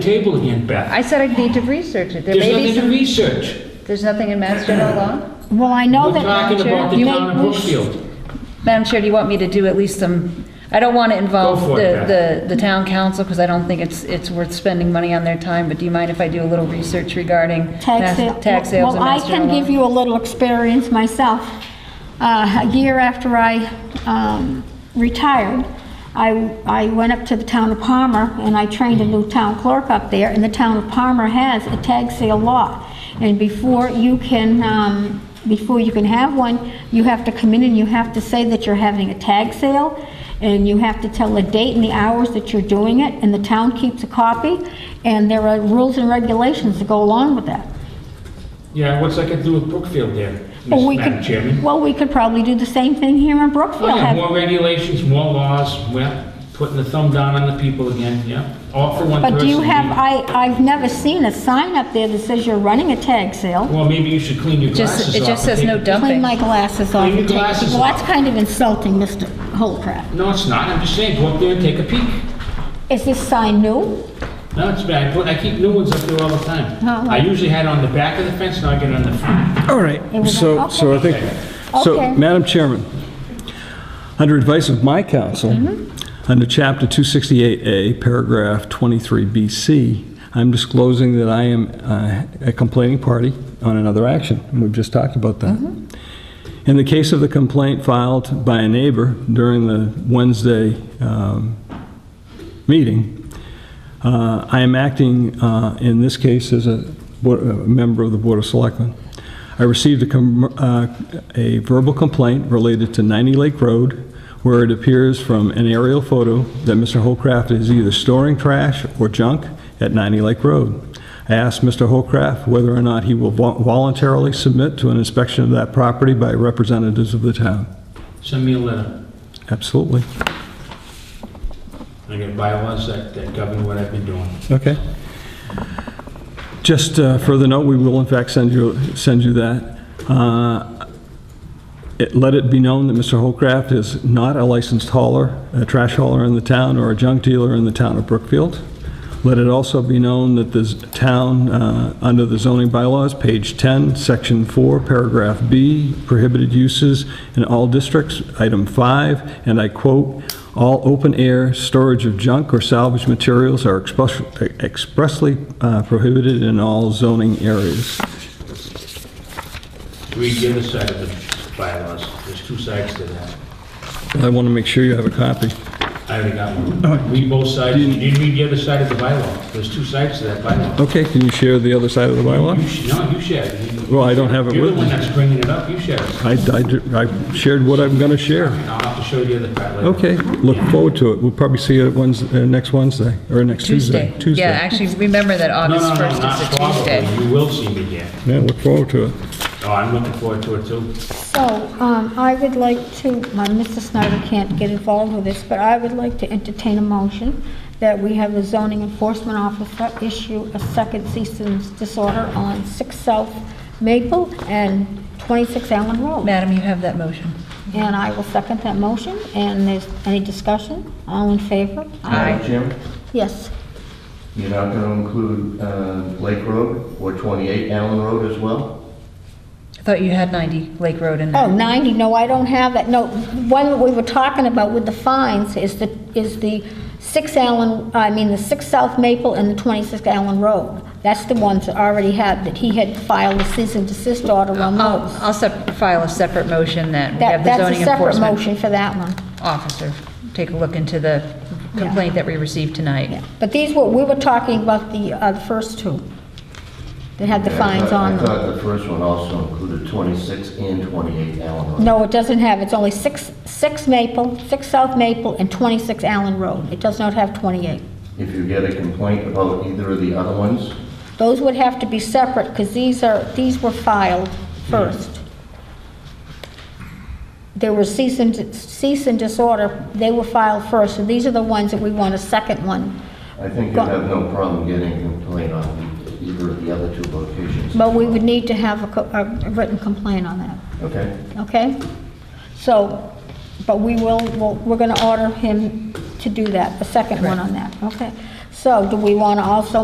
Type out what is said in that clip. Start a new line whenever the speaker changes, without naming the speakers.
table again, Beth.
I said I'd need to research it. There
There's
may be
nothing to
some,
research.
there's nothing in Mass General law?
Well, I know
We're
Oh, that.
talking about the
you
town of
ain't-
Brookfield.
Madam Chair, do you want me to do at least some, I don't want to involve
Go for it,
the, the, the town council because I don't think it's, it's worth spending money on their time, but do you mind if I do a little research regarding
Tax
mass-
sale.
tax sales and Mass
Well, I
General
can give
law?
you a little experience myself. Uh, A year after I um, retired, I, I went up to the town of Palmer, and I trained a new town clerk up there, and the town of Palmer has a tag sale law. And before you can, um, before you can have one, you have to come in and you have to say that you're having a tag sale, and you have to tell the date and the hours that you're doing it, and the town keeps a copy, and there are rules and regulations that go along with that.
Yeah, what's that got to do with Brookfield there,
Well, Oh, we
Miss- Madam
could-
Chairman?
Well, we could probably do the same thing here in
Oh,
Brookfield.
yeah,
Have-
more regulations, more laws, well, putting the thumb down on the people again, yeah. All for one person.
But do you have,
maybe.
I, I've never seen a sign up there that says you're running a tag sale.
Well, maybe you should clean your
Just-
glasses off.
it just
and
says no
take-
dump.
Clean my glasses off.
Clean your
and take-
glasses
Well,
off.
that's kind of insulting, Mr. Holcraft.
No, it's not, I'm just saying, go up there and take a peek.
Is this sign new?
No, it's bad, I put, I keep new ones up there all the time.
No, no.
I usually had it on the back of the fence, now I get it on the front.
All right,
It was
so,
like,
so I think,
Okay.
so, Madam Chairman, under advice of my counsel,
Mm-hmm.
under Chapter 268A, Paragraph 23BC, I'm disclosing that I am uh, a complaining party on another action. We've just talked about that.
Mm-hmm.
In the case of the complaint filed by a neighbor during the Wednesday um, meeting, uh, I am acting, uh, in this case, as a bo- a member of the Board of Selectmen. I received a com- uh, a verbal complaint related to 90 Lake Road, where it appears from an aerial photo that Mr. Holcraft is either storing trash or junk at 90 Lake Road. I asked Mr. Holcraft whether or not he will vol- voluntarily submit to an inspection of that property by representatives of the town.
Send me a letter.
Absolutely.
I got bylaws that that govern what I've been doing.
Okay. Just uh, further note, we will in fact send you, send you that. Uh, it- Let it be known that Mr. Holcraft is not a licensed hauler, a trash hauler in the town, or a junk dealer in the town of Brookfield. Let it also be known that this town, uh, under the zoning bylaws, page 10, section 4, paragraph B, prohibited uses in all districts, item 5, and I quote, "All open-air storage of junk or salvage materials are express- expressly uh, prohibited in all zoning areas."
Read the other side of the bylaws. There's two sides to that.
I want to make sure you have a copy.
I already got
Oh.
one. Read both sides. You didn't read the other side of the bylaw. There's two sides to that bylaw.
Okay, can you share the other side of the bylaw?
You sh no, you share. it. You-
Well, I don't have it
You're the
with
one
me.
that's bringing it up. You share it.
I, I ju- I shared what I'm going to share.
I'll have to show you the other part later.
Okay, look forward to it. We'll probably see you at Wednes- uh next Wednesday, or next Tuesday.
Tuesday. Yeah, actually, remember that
No,
August
no, no,
1st
not
is a Tuesday.
probably. You will see me again.
Yeah, look forward to it.
Oh, I'm looking forward to it too.
So, um, I would like to, my, Mr. Snyder can't get involved with this, but I would like to entertain a motion that we have the zoning enforcement officer issue a second cease and disorder on 6 South Maple and 26 Allen Road.
Madam, you have that motion.
And I will second that motion, and there's any discussion? All in favor?
Aye.
Jim,
Yes.
you're not going to include uh, Lake Road or 28 Allen Road as well?
I thought you had 90 Lake Road in
Oh,
there.
90, no, I don't have that, no, one that we were talking about with the fines is the, is the 6 Allen, I mean, the 6 South Maple and the 26 Allen Road. That's the ones that already had, that he had filed a cease and desist order on
I'll,
those.
I'll sep- file a separate motion that we
That,
have Oh, the
that's a
zoning
separate
enforcement
motion for that one.
officer take a look into the complaint that we received tonight.
Yeah. But these were, we were talking about the, uh, the first two that had the fines on
I
them.
thought the first one also included 26 and 28 Allen Road.
No, it doesn't have, it's only six, six Maple, six South Maple, and 26 Allen Road. It does not have 28.
If you get a complaint about either of the other ones,
Those would have to be separate, because these are, these were filed first. There were cease and, cease and disorder, they were filed first, so these are the ones that we want a second one.
I think you'd have no problem getting a complaint on either of the other two locations.
But we would need to have a co- a written complaint on that,
Okay?
okay? So, but we will, we'll- we're going to order him to do that, a second one on that, okay? So do we want to also